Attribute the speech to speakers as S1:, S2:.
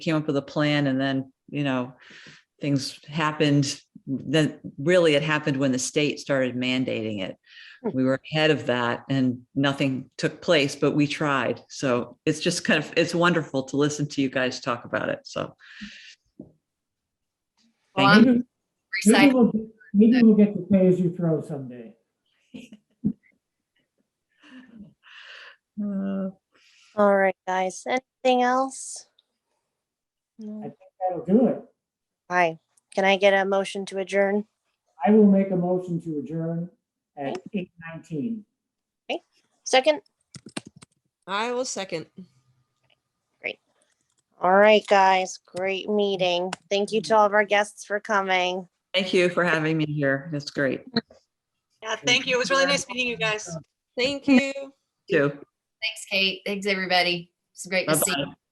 S1: came up with a plan and then, you know, things happened. Then really it happened when the state started mandating it.
S2: Hmm.
S1: We were ahead of that and nothing took place, but we tried. So it's just kind of, it's wonderful to listen to you guys talk about it. So.
S2: Well,
S1: Thank
S2: I'm
S3: Maybe maybe
S2: excited.
S3: we'll get- Maybe we'll get to pay as you throw someday.
S1: you. Uh,
S4: All right, guys. Anything else?
S3: I
S4: No.
S3: think that'll do it.
S4: Hi, can I get a motion to adjourn?
S3: I will make a motion to adjourn at eight nineteen.
S4: Second?
S5: I will second.
S4: All right, guys. Great meeting. Thank you to all of our guests for coming.
S1: Thank you for having me here. That's great.
S6: Yeah, thank you. It was really nice meeting you guys.
S5: Thank you.
S1: Too.
S2: Thanks, Kate. Thanks, everybody. It's great to see.
S1: Bye-bye.